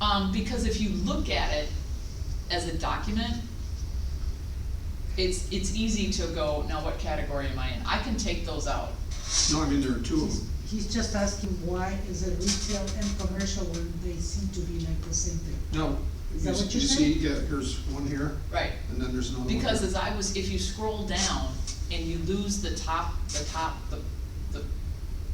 Um, because if you look at it as a document, it's, it's easy to go, now what category am I in? I can take those out. No, I mean, there are two of them. He's just asking why is it retail and commercial when they seem to be like the same thing? No. Is that you- what you You said? see, yeah, here's one here, Right, and then there's another one. because here. as I was, if you scroll down and you lose the top, the top, the, the,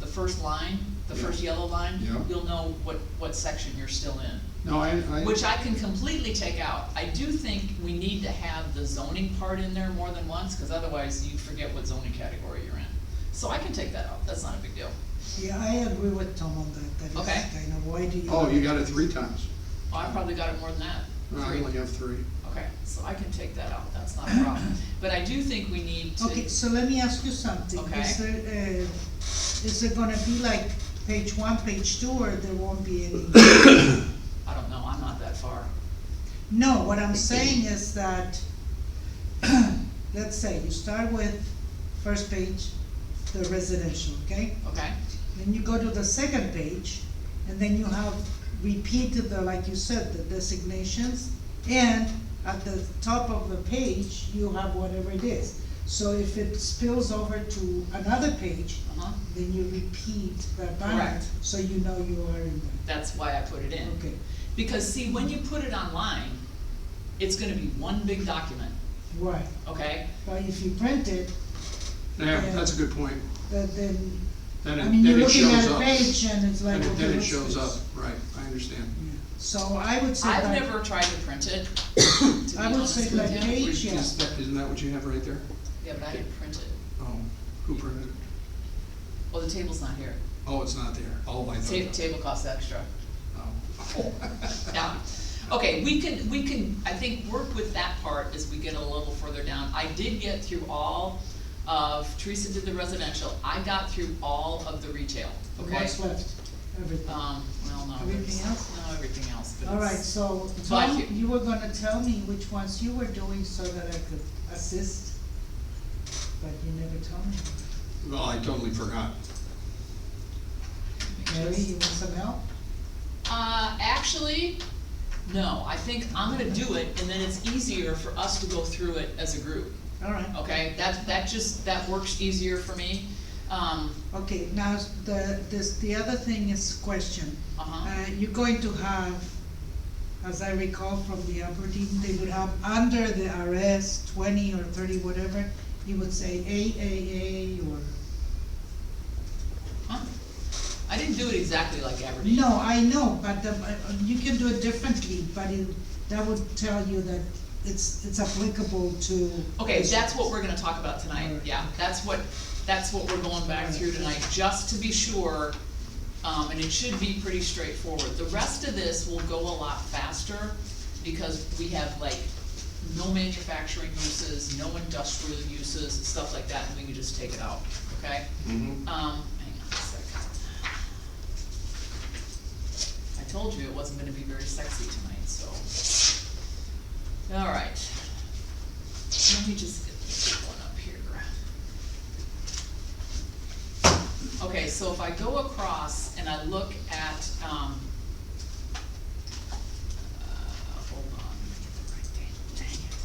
the first line, the first Yeah. yellow line, Yeah. you'll know what, what section you're still in. No, I, I. Which I can completely take out. I do think we need to have the zoning part in there more than once, cause otherwise you forget what zoning category you're in. So I can take that out, that's not a big deal. Yeah, I agree with Tom on that, that Okay. is kind of, why do you? Oh, you got it three times. Oh, I probably got it more than that. No, I Three. only have three. Okay, so I can take that out, that's not a problem. But I do think we need to. Okay, so let me ask you something. Okay. Is there, uh, is it gonna be like page one, page two, or there won't be any? I don't know, I'm not that far. No, what I'm saying is that, let's say you start with first page, the residential, okay? Okay, Then you go to the second page, and then you have repeated the, like you said, the designations, and at the top of the page, you have whatever it is. So if it spills over to another page, uh-huh, then you repeat that banner, Correct. so you know you are in there. that's why I put it in. Okay, Because see, when you put it online, it's gonna be one big document, right, okay? but if you print it, Yeah, Yeah. that's a good point. then, then, Then I it, mean, you're then it looking shows at a up. page and it's like, Then okay, it, then it what's shows up, this? right, I understand. Yeah. So I would say I've that. never tried to print it, to be I would honest say with like you. page- Is yeah. that, isn't that what you have right there? Yeah, but I didn't print it. Oh, who printed it? Well, the table's not here. Oh, it's not there. Oh, I Ta- thought. table costs extra. Oh. Yeah, okay, we can, we can, I think, work with that part as we get a little further down. I did get through all of, Teresa did the residential, I got through all of the retail, okay? What's left, everything. Um, well, no. Everything there's- else? No, everything else, but All right, it's- so, But Tom, you- you were gonna tell me which ones you were doing so that I could assist, but you never told me. Well, I totally forgot. Mary, you want some help? Uh, actually, no, I think I'm gonna do it, and then it's easier for us to go through it as a group, All right, okay? That, that just, that works easier for me, um, okay, now, the, this, the other thing is question. uh-huh. Uh, you're going to have, as I recall from the Aberdeen, they would have under the RS twenty or thirty, whatever, you would say AAA or, Huh? I didn't do it exactly like Aberdeen. no, I know, but the, but you can do it differently, but it, that would tell you that it's, it's applicable to. Okay, that's what we're gonna talk about tonight, yeah, that's what, that's what we're going back through tonight, just to be sure. Um, and it should be pretty straightforward, the rest of this will go a lot faster, because we have like no manufacturing uses, no industrial uses, stuff like that, and we can just take it out, okay? Mm-hmm. Um, hang on a second. I told you it wasn't gonna be very sexy tonight, so. Alright. Let me just get this one up here. Okay, so if I go across and I look at, um, uh, hold on, let me get the right date, dang it.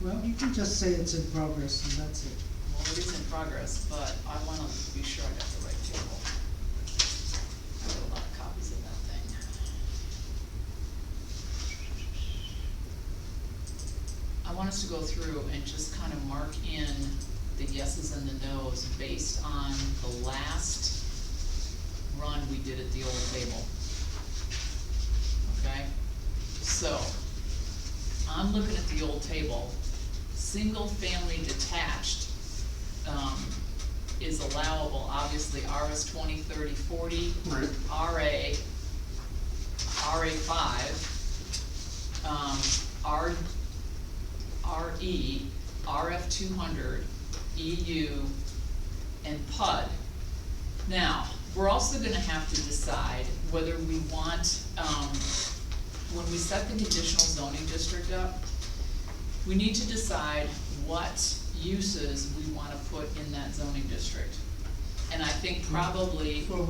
Well, you can just say it's in progress and that's it. Well, it is in progress, but I wanna be sure I got the right table. I got a lot of copies of that thing. I want us to go through and just kind of mark in the yeses and the nos based on the last run we did at the old table. Okay? So, I'm looking at the old table, single-family detached, um, is allowable, obviously, RS twenty, thirty, forty, Right. RA, RA five, um, R, RE, RF two hundred, EU, and PUD. Now, we're also gonna have to decide whether we want, um, when we set the conditional zoning district up, we need to decide what uses we wanna put in that zoning district. And I think probably Well,